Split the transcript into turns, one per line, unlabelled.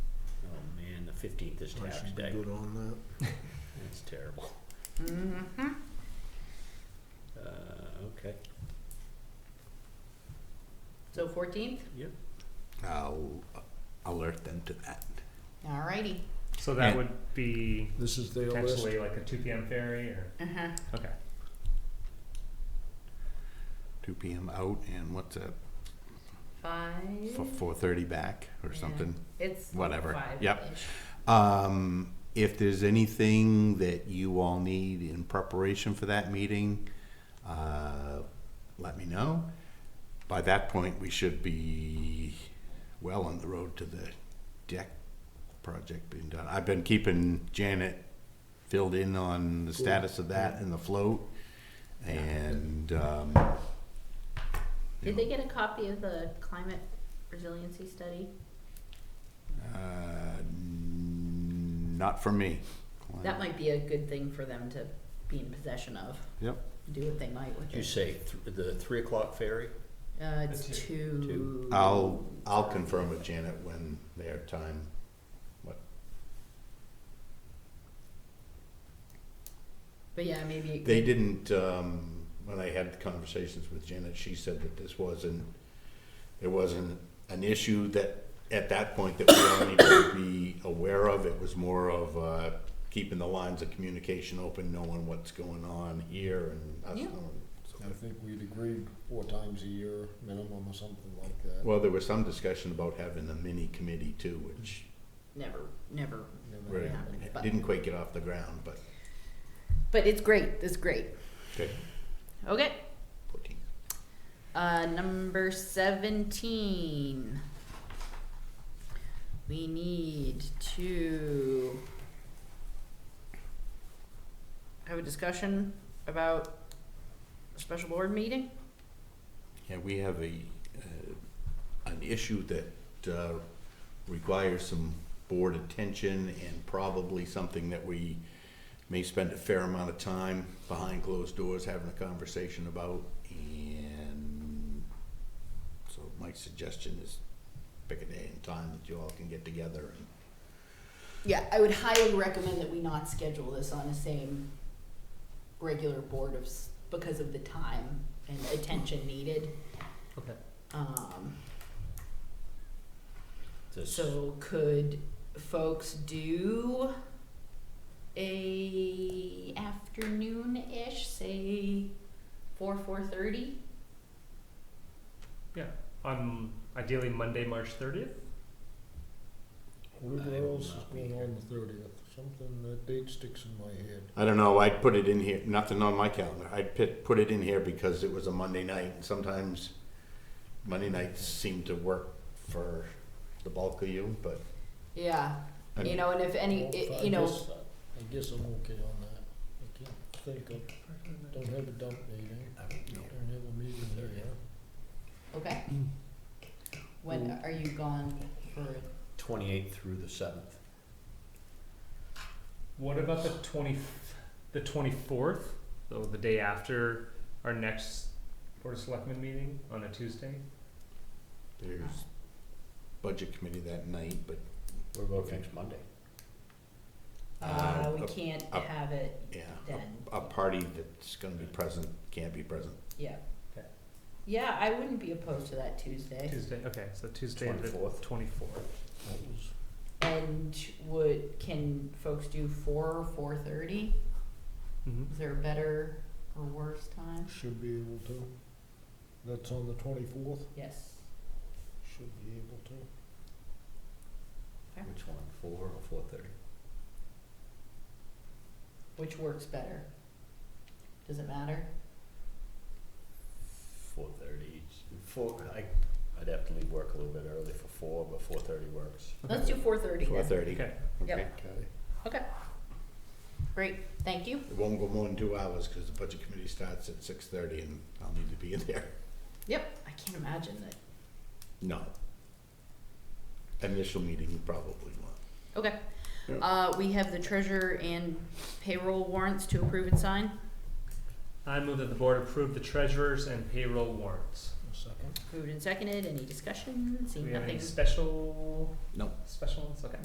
Oh,
fifteenth is
I
tax
should be
day.
good on that.
It's terrible.
Mm-hmm.
Uh, okay.
So fourteenth,
I'll alert them to that.
alrighty,
So that
And-
would be
This is their list.
potentially like a two PM ferry or,
uh-huh,
okay.
2 p.m. out and what's that? For
five,
4:30 back or
Yeah.
something.
it's
whatever.
five-ish.
Yep. Um, if there's anything that you all need in preparation for that meeting, uh, let me know. By that point, we should be well on the road to the deck project being done. I've been keeping Janet filled in on the status of that and the float. And, um,
Did they get a copy of the climate resiliency study?
uh, not for me.
That might be a good thing for them to be in possession of,
Yep.
do what they might with
Did you
it.
say th- the three o'clock ferry?
Uh, it's
The
two.
I'll, I'll confirm with Janet when their time,
But yeah, maybe. it
they
could-
didn't, um, when I had conversations with Janet, she said that this wasn't, it wasn't an issue that, at that point, that we all needed to be aware of, it was more of, uh, keeping the lines of communication open, knowing what's going on here and us
Yeah.
knowing.
I think we'd agreed four times a year minimum or something like that.
Well, there was some discussion about having a mini committee too, which
Never, never.
Never
really
happened.
but-
didn't quite get off the ground, but,
But it's great, it's great.
okay,
Okay,
fourteen.
uh, number seventeen. We need to have a discussion about a special board meeting?
Yeah, we have a, uh, an issue that, uh, requires some board attention and probably something that we may spend a fair amount of time behind closed doors having a conversation about and so my suggestion is pick a day and time that you all can get together and
Yeah, I would highly recommend that we not schedule this on the same regular board of, s- because of the time and attention needed.
Okay.
Um,
This,
so could folks do a afternoon-ish, say four, four thirty?
Yeah, on ideally Monday, March thirtieth?
Whatever
I will
else is
not be
going
here.
on the thirtieth, something, that date sticks in my head.
I don't know, I'd put it in here, nothing on my calendar, I'd put, put it in here because it was a Monday night, and sometimes Monday nights seem to work for the bulk of you, but.
Yeah,
I
you
mean-
know, and if any,
Well,
i-
I
you know,
guess- I guess I'm okay on that. I can't think of, don't have a dump meeting, don't have a meeting here.
okay. When are you gone for
Twenty-eighth through the seventh.
What about the twenty, the twenty-fourth, though the day after our next Board of Selectmen meeting on a Tuesday?
There's budget committee that night, but
What about next Monday?
Uh,
Uh,
we
up-
can't
up.
have it
yeah,
then,
a, a party that's gonna be present, can't be present.
yeah.
Okay.
Yeah, I wouldn't be opposed to that Tuesday.
Tuesday, okay, so Tuesday the
24th.
twenty-fourth.
That was
And would, can folks do four or four thirty?
Mm-hmm.
Is there a better or worse time?
Should be able to. That's on the twenty-fourth,
Yes.
should be able to.
Which one, four or four thirty?
Which works better? Does it matter?
Four thirty, four, I, I'd have to leave work a little bit early for four, but four thirty works.
Let's do four thirty
Four
then.
thirty,
Okay,
Yep.
okay?
Okay. Great, thank you.
It won't go more than two hours, cause the budget committee starts at six thirty and I'll need to be in there.
Yep, I can't imagine that.
No. Initial meeting probably won't.
Okay.
Yeah.
Uh, we have the treasurer and payroll warrants to approve and sign.
I move that the board approve the treasurer's and payroll warrants.
A second.
Moved and seconded, any discussion?
Do
Seeing
we have any
nothing.
special?
No.
Special ones, okay.